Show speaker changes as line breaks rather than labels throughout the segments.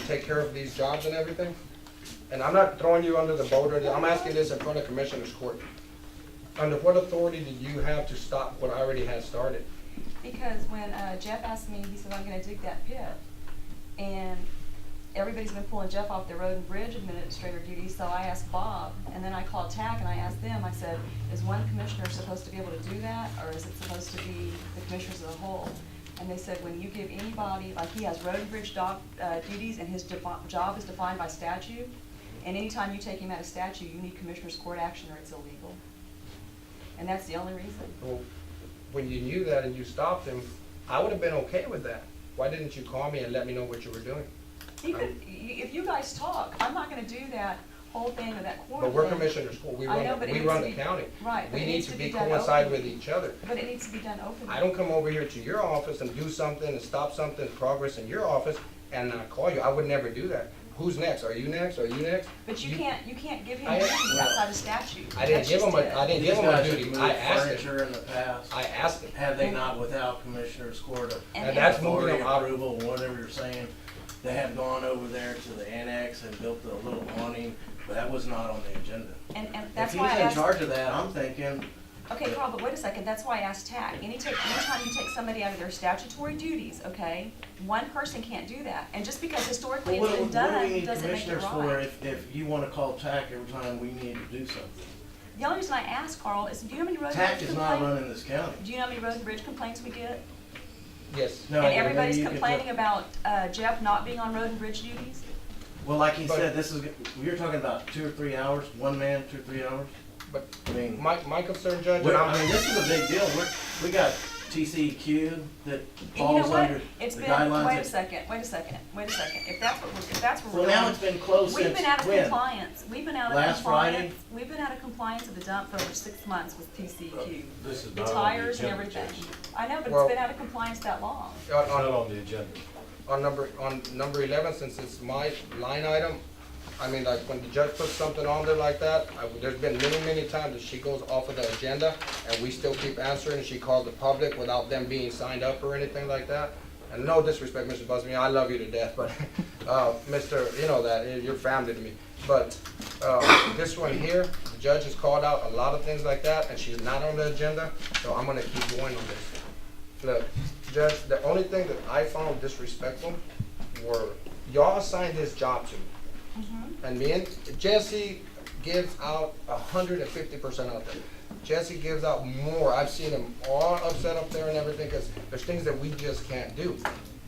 take care of these jobs and everything. And I'm not throwing you under the boat, or I'm asking this in front of Commissioners Court. Under what authority do you have to stop what I already had started?
Because when uh, Jeff asked me, he said, I'm gonna dig that pit. And everybody's been pulling Jeff off the road and bridge administrator duty, so I asked Bob, and then I called TAC and I asked them, I said, is one commissioner supposed to be able to do that, or is it supposed to be the commissioners as a whole? And they said, when you give anybody, like he has road and bridge dog, uh, duties, and his defi- job is defined by statute, and anytime you take him out of statute, you need commissioners court action or it's illegal. And that's the only reason.
Well, When you knew that and you stopped him, I would have been okay with that. Why didn't you call me and let me know what you were doing?
You could, y- if you guys talk, I'm not gonna do that whole thing or that quarter
But we're
thing.
Commissioners Court, we
I know,
run, the-
but it
we
needs to
run the
be-
county.
right, but
We
it
need
needs
to
to
be
be done
coincide
openly.
with each other.
But it needs to be done openly.
I don't come over here to your office and do something and stop something, progress in your office, and not call you. I would never do that. Who's next? Are you next? Are you next?
But you can't, you can't give him
I-
anything outside of statute.
I didn't
That's
give
just
him a,
it.
I didn't
These
give him a
guys have
duty.
moved
I asked him.
Furniture in the past,
I asked him.
have they not without Commissioner's Court of
And-
And that's moving
authority
them out.
approval, whatever you're saying? They have gone over there to the annex and built the little awning, but that was not on the agenda.
And, and
If
that's
he's
why I
in
asked,
charge of that, I'm thinking,
okay, Carl, but wait a second, that's why I asked TAC. Any take, anytime you take somebody out of their statutory duties, okay, one person can't do that. And just because historically
well,
it's
what do
been
what do we
done,
need
doesn't make it
commissioners for
right.
if, if you wanna call TAC every time we need to do something?
The only reason I asked, Carl, is do you know how many road and
TAC
bridge
is not
complaints?
running this county.
Do you know how many road and bridge complaints we get?
Yes.
No,
And
maybe
everybody's
you could put-
complaining about uh, Jeff not being on road and bridge duties?
Well, like he
But-
said, this is, you're talking about two or three hours, one man, two or three hours?
But
I mean.
my, my concern, Judge, and
Well, I
I'm,
mean, this is a big deal. We're, we got TCEQ that
And you know
falls
what?
under
It's
the
been, wait a
guidelines. that-
second, wait a second, wait a second. If that's what we're, if that's what
Well,
we're
now it's
doing.
been closed
We've
since
been out of
when?
compliance, we've been out of
Last Friday?
compliance, we've been out of compliance at the dump for over six months with TCEQ.
This is
The
not on the
tires and
agenda,
everything.
Jason.
I know, but
Well-
it's been out of compliance that long.
on,
It's not
on,
on the agenda.
on number, on number eleven, since it's my line item, I mean, like, when the judge puts something on there like that, I, there's been many, many times that she goes off of the agenda, and we still keep answering, and she calls the public without them being signed up or anything like that. And no disrespect, Mr. Busby, I love you to death, but, uh, Mr., you know that, eh, you're family to me. But, uh, this one here, the judge has called out a lot of things like that, and she's not on the agenda, so I'm gonna keep going on this. Look, Judge, the only thing that I found disrespectful were, y'all assigned this job to me. And me and Jesse gives out a hundred and fifty percent out there. Jesse gives out more. I've seen him all upset up there and everything, cause there's things that we just can't do.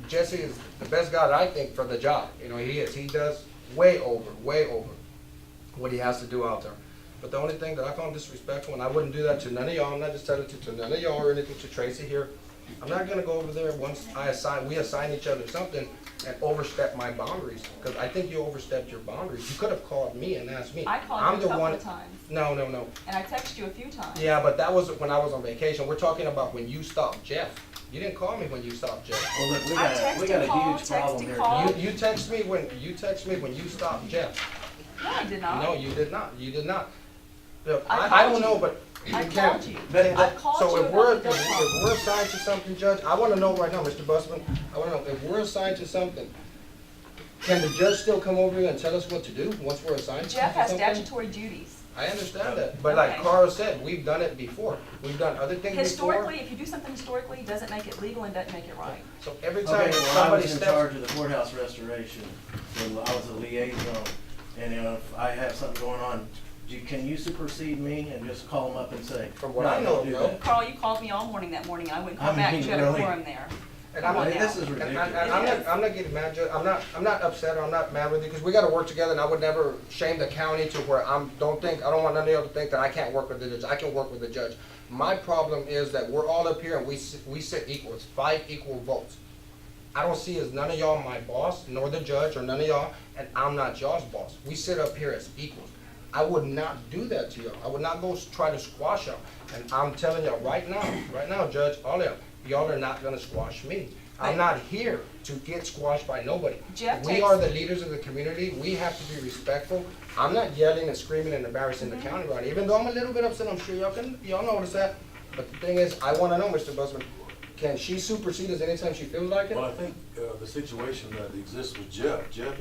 Jesse is the best guy that I think for the job. You know, he is. He does way over, way over what he has to do out there. But the only thing that I found disrespectful, and I wouldn't do that to none of y'all, I'm not just telling it to, to none of y'all or anything to Tracy here. I'm not gonna go over there once I assign, we assign each other something and overstep my boundaries, because I think you overstepped your boundaries. You could have called me and asked me.
I called
I'm
you
the
a couple
one-
of times,
No, no, no.
and I texted you a few times.
Yeah, but that was when I was on vacation. We're talking about when you stopped Jeff. You didn't call me when you stopped Jeff.
Well, look,
I
we got, a- we
text
got
and call,
a huge
text
problem
and
here.
call.
You, you text me when, you text me when you stopped Jeff.
No, I did not.
No, you did not. You did not. Look,
I
I, I don't
called
know,
you.
but you
I
can't.
called you.
But-
I called you
So if
about
we're, if
the dump problem.
if we're assigned to something, Judge, I wanna know right now, Mr. Busman, I wanna know, if we're assigned to something, can the judge still come over here and tell us what to do once we're assigned to something?
Jeff has statutory duties.
I understand that, but like
Okay.
Carl said, we've done it before. We've done other things before.
Historically, if you do something historically, it doesn't make it legal and doesn't make it right.
So every
Okay,
time
well, I
somebody
was in
steps,
charge of the courthouse restoration, and I was a liaison, and you know, if I have something going on, do, can you supersede me and just call them up and say,
From
no,
what I know,
don't do
no.
that?
Carl, you called me all morning that morning, and I wouldn't call
I
back,
mean,
you had a
really?
quorum there.
and I'm
Come on
Well,
now.
This is
And I,
ridiculous.
I, I'm not, I'm not getting mad, Judge, I'm not, I'm not upset, or I'm not mad with you, because we gotta work together, and I would never shame the county to where I'm, don't think, I don't want none of y'all to think that I can't work with the judge, I can work with the judge. My problem is that we're all up here and we, sit- we sit equal, it's five equal votes. I don't see as none of y'all my boss, nor the judge, or none of y'all, and I'm not y'all's boss. We sit up here as equals. I would not do that to y'all. I would not go s- try to squash y'all. And I'm telling y'all right now, right now, Judge, all y'all, y'all are not gonna squash me. I'm not here to get squashed by nobody.
Jeff
We
takes-
are the leaders of the community. We have to be respectful. I'm not yelling and screaming and embarrassing
Mm-hmm.
the county right, even though I'm a little bit upset, I'm sure y'all can, y'all notice that. But the thing is, I wanna know, Mr. Busman, can she supersede us anytime she feels like it?
Well, I think uh, the situation that exists with Jeff, Jeff is